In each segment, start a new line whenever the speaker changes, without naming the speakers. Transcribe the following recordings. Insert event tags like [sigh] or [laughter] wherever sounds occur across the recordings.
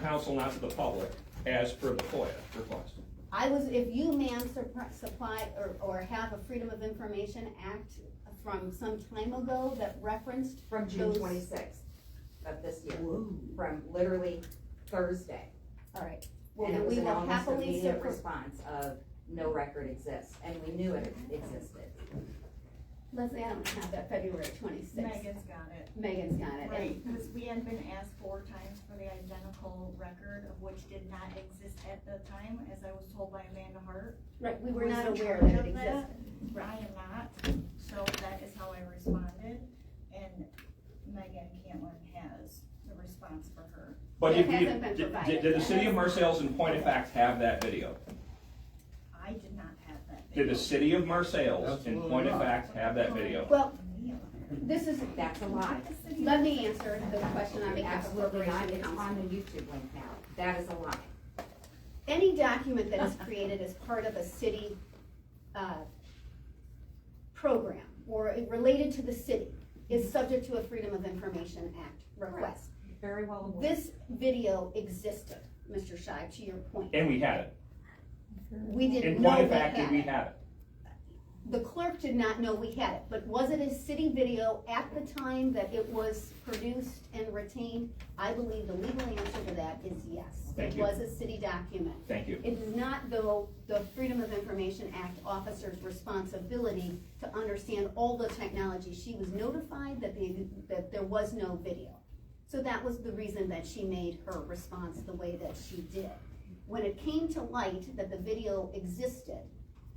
council, not to the public, as per the FOIA request.
I was, if you ma'am surpri- supply or, or have a Freedom of Information Act from some time ago that referenced.
From June
those-
twenty-sixth of this year, from literally Thursday.
All right,
And it
well,
was
we
an
will
almost
happily
immediate
circle,
response of, no record exists, and we knew it existed.
Leslie, I don't have that February twenty-sixth.
Megan's got it.
Megan's got it.
Right,
and-
because we had been asked four times for the identical record of which did not exist at the time, as I was told by Amanda Hart.
Right, we were
who
not
was in
aware
charge
that it
of
existed.
I am not, so that is how I responded, and Megan Cantlin has the response for her.
But if
It
you,
hasn't been
did- did,
provided.
did the city of Marseilles in point of fact have that video?
I did not have that.
Did
video.
the city of Marseilles in
Absolutely
point of
not.
fact have that video?
Well,
Yeah.
this is,
That's a lie.
The city-
let me answer the question on behalf of
Absolutely not,
Corporation
it's
Council.
on the YouTube link now, that is a lie.
any document that is created as part of a city, uh, program or related to the city is subject to a Freedom of Information Act request.
Very well aware.
This video existed, Mr. Shive, to your point.
And we had it.
We
In
didn't know
point
we
of fact, did
had
we
it.
have it?
The clerk did not know we had it, but was it a city video at the time that it was produced and retained? I believe the legal answer to that is yes.
Thank
It
you.
was a city document.
Thank you.
It is not, though, the Freedom of Information Act officer's responsibility to understand all the technology. She was notified that the, that there was no video. So that was the reason that she made her response the way that she did. When it came to light that the video existed,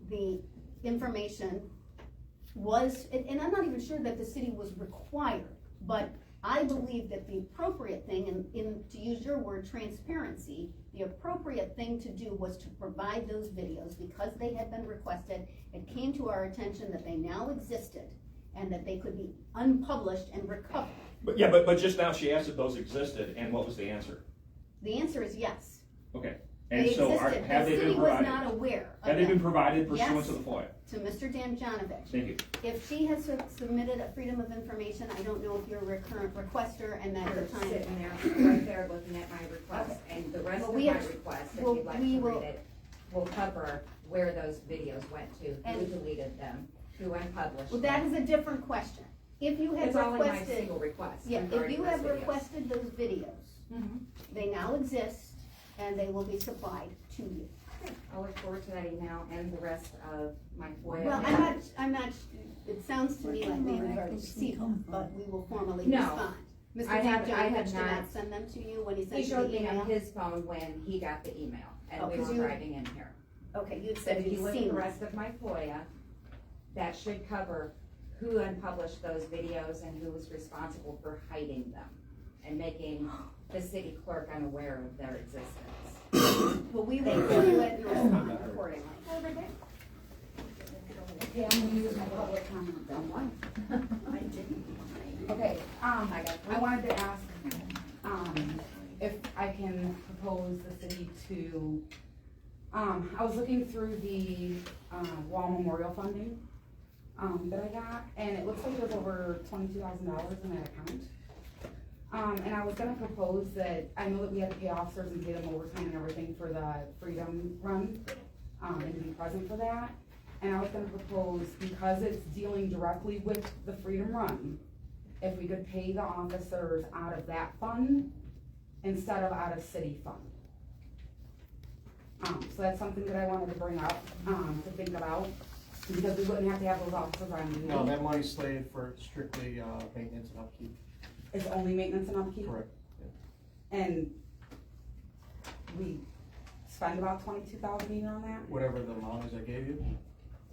the information was, and, and I'm not even sure that the city was required, but I believe that the appropriate thing, and in, to use your word, transparency, the appropriate thing to do was to provide those videos because they had been requested. It came to our attention that they now existed and that they could be unpublished and recovered.
But, yeah, but, but just now she asked if those existed, and what was the answer?
The answer is yes.
Okay.
They
And so are,
existed.
have they been
The city was
provided?
not aware of
Have they been
them.
provided pursuant
Yes.
to the FOIA?
To Mr. Damjanovic.
Thank you.
If she has su- submitted a freedom of information, I don't know if you're a recurrent requester and that
You're
your time.
sitting
[coughs]
there, right there, looking at my request, and the rest
Well,
of
we
my
have-
request, if
well,
you'd like
we
to
will-
read it, will cover where those videos went to, who
And-
deleted them, who unpublished
Well,
them.
that is a different question. If you have
It's all in my
requested,
single request.
yeah, if
regarding
you
those
have
videos.
requested those videos,
Mhm.
they now exist and they will be supplied to you.
I'll look forward to that email and the rest of my FOIA.
Well, I'm not, I'm not, it sounds to me like maybe we've already received them, but we will formally
No.
respond. Mr.
I have- I
Damjanovic
have
did
not-
not send them to you when he
He
sent you
showed
the
me
email?
on his phone when he got the email, and we
Okay.
were driving in here.
Okay, you
But
said
if you
you've
look at
seen
the
them.
rest of my FOIA, that should cover who unpublished those videos and who was responsible for hiding them and making the city clerk unaware of their existence.
But we will review it and respond accordingly.
Yeah, I'm gonna use my public comment on one.
I didn't.
Okay, um,
I got
I wanted to ask, um, if I can propose the city to, um, I was looking through the, uh, Wall Memorial Funding, um, that I got, and it looks like it was over twenty-two thousand dollars in that account. Um, and I was gonna propose that, I know that we had to pay officers and pay them overtime and everything for the Freedom Run, um, and to be present for that. And I was gonna propose, because it's dealing directly with the Freedom Run, if we could pay the officers out of that fund instead of out of city fund. Um, so that's something that I wanted to bring up, um, to think about, because we wouldn't have to have those officers on duty.
No, that money's slated for strictly, uh, maintenance and upkeep,
It's only maintenance and upkeep,
correct?
and we spend about twenty-two thousand a year on that.
Whatever the amount is I gave you.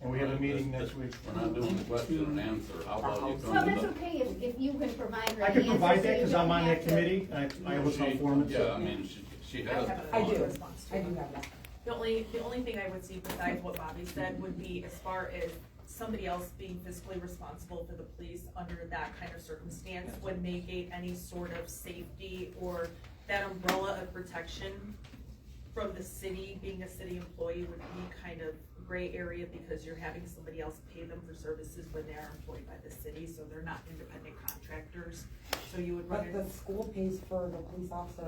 And we have a meeting next
This- this-
week.
We're not doing the question and answer, how about you
Well,
come
that's
to
okay if, if you can provide her
I
the
could provide
answer so
that,
you
cause I'm
don't
on
have
that
to-
committee, and I, I
the?
was
She-
on forum. and
Yeah, I
stuff.
mean, she, she
I
has. the
have a
I
fund.
do.
response to
I do
it.
have that.
The only, the only thing I would see besides what Bobby said would be as far as somebody else being fiscally responsible for the police under that kind of circumstance would negate any sort of safety or that umbrella of protection from the city, being a city employee would be kind of gray area because you're having somebody else pay them for services when they are employed by the city, so they're not independent contractors. So you would run
But
into
the school pays for the police officer